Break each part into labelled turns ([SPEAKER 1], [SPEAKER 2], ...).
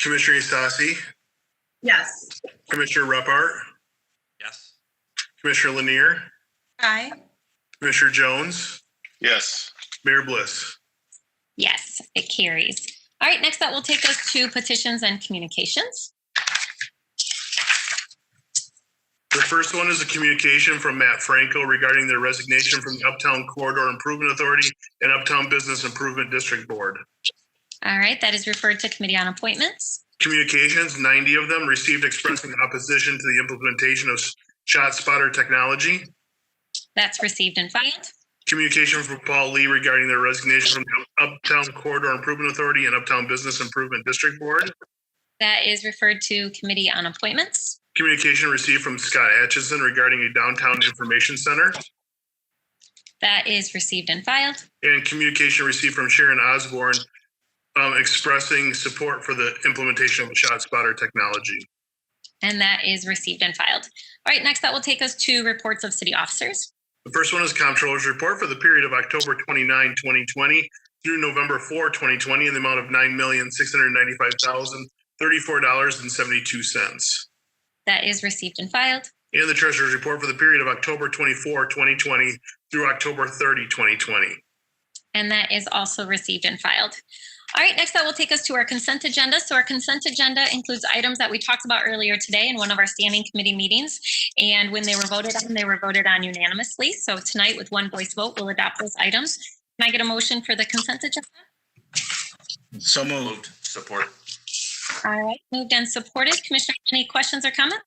[SPEAKER 1] Commissioner Eastasi,
[SPEAKER 2] Yes.
[SPEAKER 1] Commissioner Repart,
[SPEAKER 3] Yes.
[SPEAKER 1] Commissioner Lanier,
[SPEAKER 4] Aye.
[SPEAKER 1] Commissioner Jones,
[SPEAKER 5] Yes.
[SPEAKER 1] Mayor Bliss.
[SPEAKER 4] Yes, it carries. All right, next up, we'll take us to petitions and communications.
[SPEAKER 1] The first one is a communication from Matt Franco regarding their resignation from the Uptown Corridor Improvement Authority and Uptown Business Improvement District Board.
[SPEAKER 4] All right, that is referred to Committee on Appointments.
[SPEAKER 1] Communications, 90 of them, received expressing opposition to the implementation of shot spotter technology.
[SPEAKER 4] That's received and filed.
[SPEAKER 1] Communication from Paul Lee regarding their resignation from the Uptown Corridor Improvement Authority and Uptown Business Improvement District Board.
[SPEAKER 4] That is referred to Committee on Appointments.
[SPEAKER 1] Communication received from Scott Atchison regarding a downtown information center.
[SPEAKER 4] That is received and filed.
[SPEAKER 1] And communication received from Sharon Osborne um, expressing support for the implementation of shot spotter technology.
[SPEAKER 4] And that is received and filed. All right, next that will take us to reports of city officers.
[SPEAKER 1] The first one is Comptroller's Report for the period of October 29, 2020 through November 4, 2020 in the amount of $9,695,034.72.
[SPEAKER 4] That is received and filed.
[SPEAKER 1] And the Treasurer's Report for the period of October 24, 2020 through October 30, 2020.
[SPEAKER 4] And that is also received and filed. All right, next that will take us to our consent agenda. So our consent agenda includes items that we talked about earlier today in one of our standing committee meetings. And when they were voted on, they were voted on unanimously. So tonight, with one voice vote, we'll adopt those items. Can I get a motion for the consent agenda?
[SPEAKER 5] So moved.
[SPEAKER 3] Moved. Support.
[SPEAKER 4] All right, moved and supported. Commissioner, any questions or comments?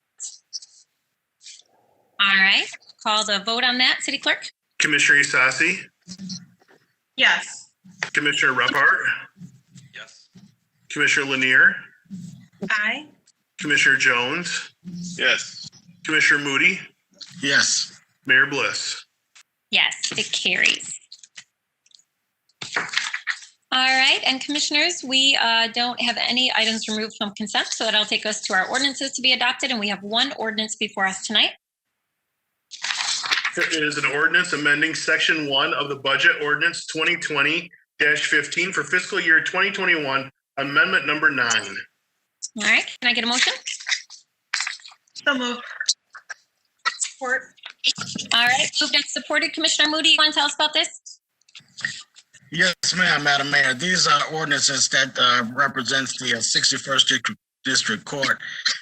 [SPEAKER 4] All right, call the vote on that, City Clerk?
[SPEAKER 1] Commissioner Isasi,
[SPEAKER 2] Yes.
[SPEAKER 1] Commissioner Repart,
[SPEAKER 3] Yes.
[SPEAKER 1] Commissioner Lanier,
[SPEAKER 2] Aye.
[SPEAKER 1] Commissioner Jones,
[SPEAKER 5] Yes.
[SPEAKER 1] Commissioner Moody,
[SPEAKER 5] Yes.
[SPEAKER 1] Mayor Bliss.
[SPEAKER 4] Yes, it carries. All right, and commissioners, we uh, don't have any items removed from consent, so that'll take us to our ordinances to be adopted, and we have one ordinance before us tonight.
[SPEAKER 1] It is an ordinance amending Section 1 of the Budget Ordinance 2020-15 for fiscal year 2021, Amendment Number 9.
[SPEAKER 4] All right, can I get a motion?
[SPEAKER 2] So moved. Support.
[SPEAKER 4] All right, moved and supported. Commissioner Moody, you want to tell us about this?
[SPEAKER 6] Yes, ma'am, Madam Mayor. These are ordinances that uh, represents the uh, 61st District- District Court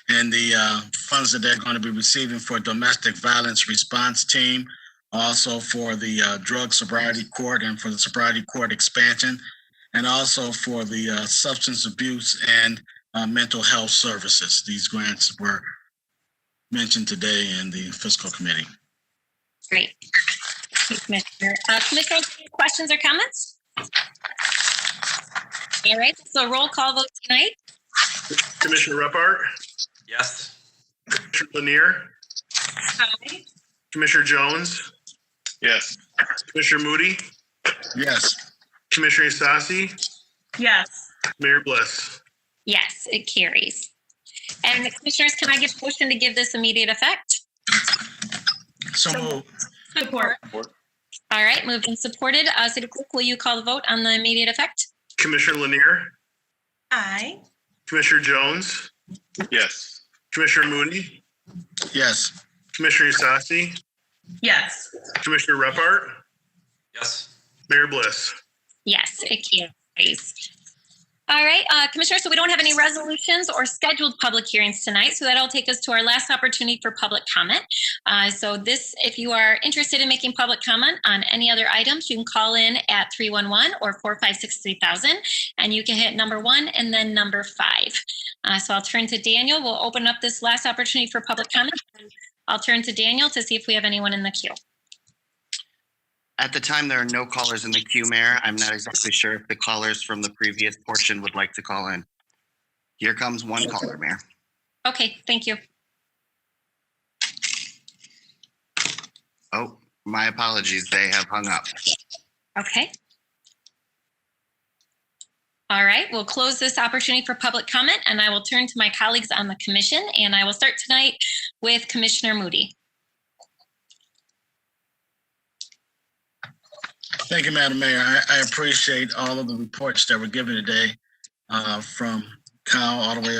[SPEAKER 6] and the uh, funds that they're going to be receiving for domestic violence response team, also for the uh, drug sobriety court and for the sobriety court expansion, and also for the uh, substance abuse and uh, mental health services. These grants were mentioned today in the fiscal committee.
[SPEAKER 4] Great. Thank you, Commissioner, Uh, Commissioners, any questions or comments? All right, so roll call vote tonight.
[SPEAKER 1] Commissioner Repart,
[SPEAKER 3] Yes.
[SPEAKER 1] Commissioner Lanier,
[SPEAKER 2] Aye.
[SPEAKER 1] Commissioner Jones,
[SPEAKER 5] Yes.
[SPEAKER 1] Commissioner Moody,
[SPEAKER 6] Yes.
[SPEAKER 1] Commissioner Isasi,
[SPEAKER 2] Yes.
[SPEAKER 1] Mayor Bliss.
[SPEAKER 4] Yes, it carries. And Commissioners, can I get a motion to give this immediate effect?
[SPEAKER 6] So
[SPEAKER 2] So-
[SPEAKER 6] moved.
[SPEAKER 2] Support.
[SPEAKER 4] All right, moved and supported. Uh, City Clerk, will you call the vote on the immediate effect?
[SPEAKER 1] Commissioner Lanier,
[SPEAKER 2] Aye.
[SPEAKER 1] Commissioner Jones,
[SPEAKER 5] Yes.
[SPEAKER 1] Commissioner Moody,
[SPEAKER 6] yes.
[SPEAKER 1] Commissioner Isasi,
[SPEAKER 2] Yes.
[SPEAKER 1] Commissioner Repart,
[SPEAKER 3] Yes.
[SPEAKER 1] Mayor Bliss.
[SPEAKER 4] Yes, it carries. All right, uh, Commissioner, so we don't have any resolutions or scheduled public hearings tonight, so that'll take us to our last opportunity for public comment. Uh, so this, if you are interested in making public comment on any other items, you can call in at 311 or 456 3000, and you can hit number one and then number five. Uh, so I'll turn to Daniel. We'll open up this last opportunity for public comment. I'll turn to Daniel to see if we have anyone in the queue.
[SPEAKER 7] At the time, there are no callers in the queue, Mayor. I'm not exactly sure if the callers from the previous portion would like to call in. Here comes one caller, Mayor.
[SPEAKER 4] Okay, thank you.
[SPEAKER 7] Oh, my apologies. They have hung up.
[SPEAKER 4] Okay. All right, we'll close this opportunity for public comment and I will turn to my colleagues on the commission and I will start tonight with Commissioner Moody.
[SPEAKER 6] Thank you, Madam Mayor. I, I appreciate all of the reports that were given today uh, from cow all the way